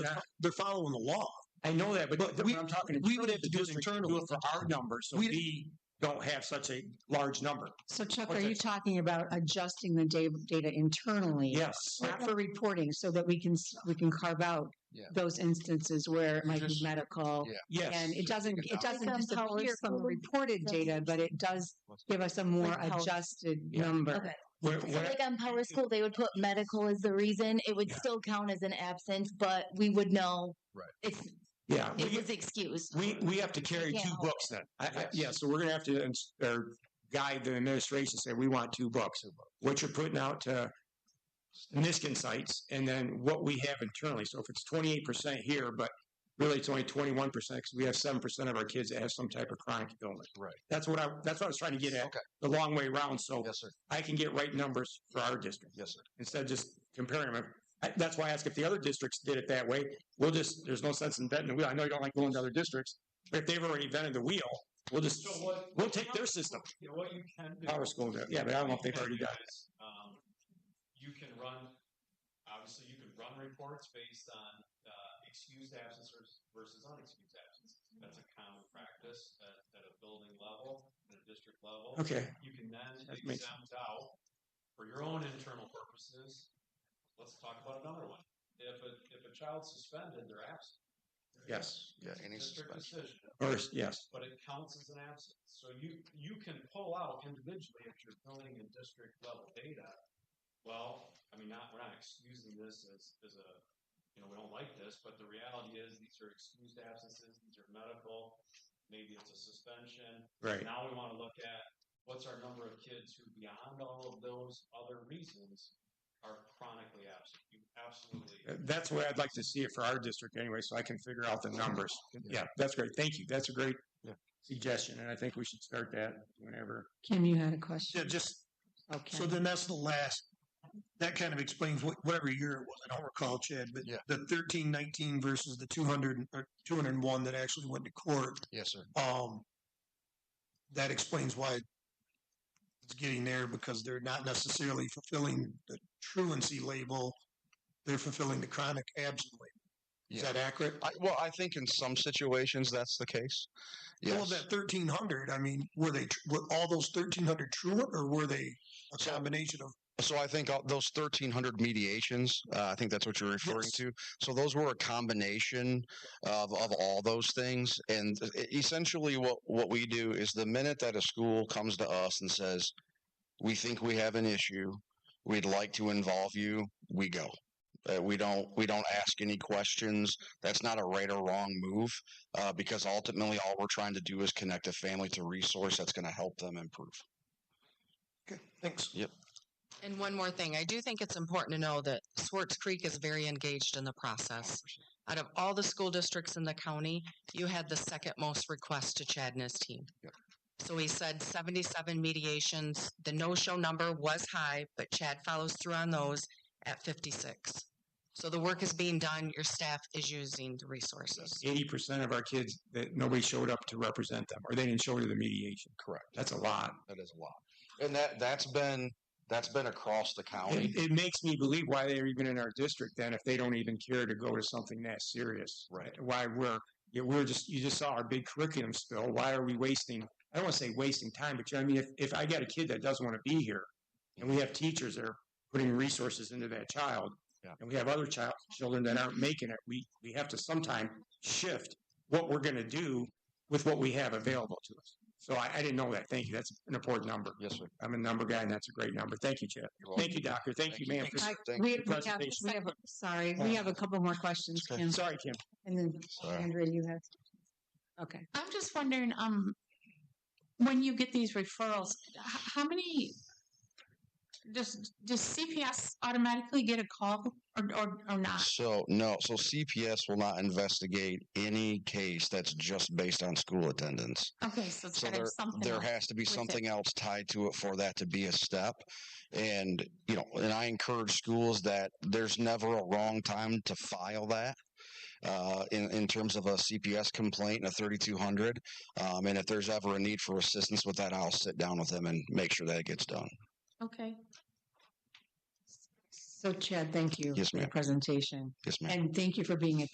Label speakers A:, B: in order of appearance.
A: They're fo- They're following the law.
B: I know that, but,
A: But
B: th-
A: we-
B: what I'm talking. in
A: we would
B: terms
A: have
B: of
A: to do it
B: district, Do
A: internally.
B: it for our numbers, so
A: We-
B: we don't have such a large number.
C: So Chuck,
B: What's
C: are you
B: that?
C: talking about adjusting the da- data internally?
B: Yes.
C: Not for reporting, so that we can, s- we can carve out
D: Yeah.
C: those instances where it might be
D: Just-
C: medical.
D: yeah.
B: Yes.
C: And it doesn't,
D: Take it
C: it
D: out.
C: doesn't
E: Become power
C: disappear from the
E: school.
C: reported
E: That's-
C: data, but it does give us a more
E: Like power-
C: adjusted
B: Yeah.
C: number.
E: Okay.
B: Where-
E: So
B: where-
E: like on Power School, they would put medical as the reason. It would
B: Yeah.
E: still count as an absence, but we would know
D: Right.
E: it's
B: yeah.
E: it
B: we-
E: was excused.
B: We, we have to carry
E: Yeah.
B: two books then. I, I, yeah, so we're gonna have to, ins- or guide the administration, say, we want two books. What you're putting out to Niskin sites and then what we have internally. So if it's twenty-eight percent here, but really it's only twenty-one percent because we have seven percent of our kids that have some type of chronic illness.
D: Right.
B: That's what I, that's what I was trying to get at,
D: Okay.
B: the long way around, so
D: Yes, sir.
B: I can get right numbers for our district
D: Yes, sir.
B: instead of just comparing them. I- That's why I ask if the other districts did it that way. We'll just, there's no sense in venting the wheel. I know you don't like going to other districts, but if they've already vented the wheel, we'll just, we'll take their system.
F: You know, what you can do.
B: Power school, there. yeah, but I don't know if they've already got
F: it. Um, you can run, obviously, you can run reports based on uh, excused absences versus unexcused absences. That's a common practice at, at a building level, at a district level.
B: it. Okay,
F: You can then
B: That makes-
F: exempt out for your own internal purposes. Let's talk about another one. If a, if a child's suspended, they're absent.
B: yes,
D: Yeah, any
F: District
D: suspension.
F: decision
B: first, yes.
F: but it counts as an absence. So you, you can pull out individually if you're filling in district level data. Well, I mean, not, we're not excusing this as, as a, you know, we don't like this, but the reality is these are excused absences, these are medical, maybe it's a suspension.
B: Right.
F: Now we want to look at what's our number of kids who beyond all of those other reasons are chronically absent. You absolutely.
B: Uh, That's the way I'd like to see it for our district anyway, so I can figure out the numbers. Yeah, that's great. Thank you. That's a great
D: Yeah.
B: suggestion, and I think we should start that whenever.
C: Kim, you had a
G: Yeah,
C: question?
G: just, so
C: Okay.
G: then that's the last, that kind of explains what, whatever year it was, I don't recall, Chad, but
D: Yeah.
G: the thirteen nineteen versus the two hundred, or two hundred and one that actually went to court,
D: Yes, sir.
G: um, that explains why it's getting there, because they're not necessarily fulfilling the truancy label, they're fulfilling the chronic absent label. Is
D: Yeah.
G: that accurate?
D: I, well, I think in some situations that's the case. Yes.
G: All of that thirteen hundred, I mean, were they, tr- were all those thirteen hundred truant, or were they a
D: So-
G: combination of
D: So I think all, those 1,300 mediations, uh, I think that's what you're referring
G: Yes.
D: to. So those were a combination of, of all those things. And e- essentially, what, what we do is the minute that a school comes to us and says, we think we have an issue, we'd like to involve you, we go. Uh, we don't we don't ask any questions. That's not a right or wrong move uh, because ultimately all we're trying to do is connect a family to resource that's going to help them improve.
G: Okay, thanks.
H: And one more thing, I do think it's important to know that Swartz Creek is very engaged in the process. Out of all the school districts in the county, you had the second most requests to Chad and his team.
D: Yep.
H: So he said seventy-seven mediations, the no-show number was high, but Chad follows through on those at fifty-six. So the work is being done, your staff is using the resources.
B: Eighty percent of our kids that nobody showed up to represent them, or they didn't show to the mediation.
D: Correct.
B: That's a lot.
D: That is a lot, and that that's been that's been across the county.
B: It, it makes me believe why they're even in our district then if they don't even care to go to something that serious.
D: Right.
B: Why we're, yeah, we're just, you just saw our big curriculum spill. Why are we wasting, I don't want to say wasting time, but you know, what I mean, if, if I got a kid that doesn't want to be here and we have teachers that are putting resources into that child
D: Yeah.
B: and we have other child, children that aren't making it, we, we have to sometime shift what we're going to do with what we have available to us. So I, I didn't know that. Thank you. That's an important number.
D: Yes, sir.
B: I'm a number guy and that's a great number. Thank you, Chad.
D: You're welcome.
B: Thank you, Doctor. Thank you, ma'am.
C: I-
D: Thank
C: We,
B: you.
C: we have,
B: Presentation. Uh,
C: we have, a- sorry, we have a couple more questions,
D: Okay.
B: for-
C: Kim,
B: Sorry, Kim.
C: and then
D: Sorry.
C: Andrea, you have. Okay.
I: I'm just wondering, um, when you get these referrals, h- how many, does, does CPS automatically get a call or, or, or not?
D: So no, so CPS will not investigate any case that's just based on school attendance.
I: Okay, so it's
D: So
I: gotta
D: there
I: be something.
D: there
I: else.
D: has to be
I: with it.
D: something else tied to it for that to be a step. And you know, and I encourage schools that there's never a wrong time to file that. Uh, in, in terms of a CPS complaint and a 3200. Um, and if there's ever a need for assistance with that, I'll sit down with them and make sure that it gets done.
I: Okay.
C: So Chad, thank you
D: Yes,
C: for the
D: ma'am.
C: presentation,
D: Yes, ma'am.
C: and thank you for being at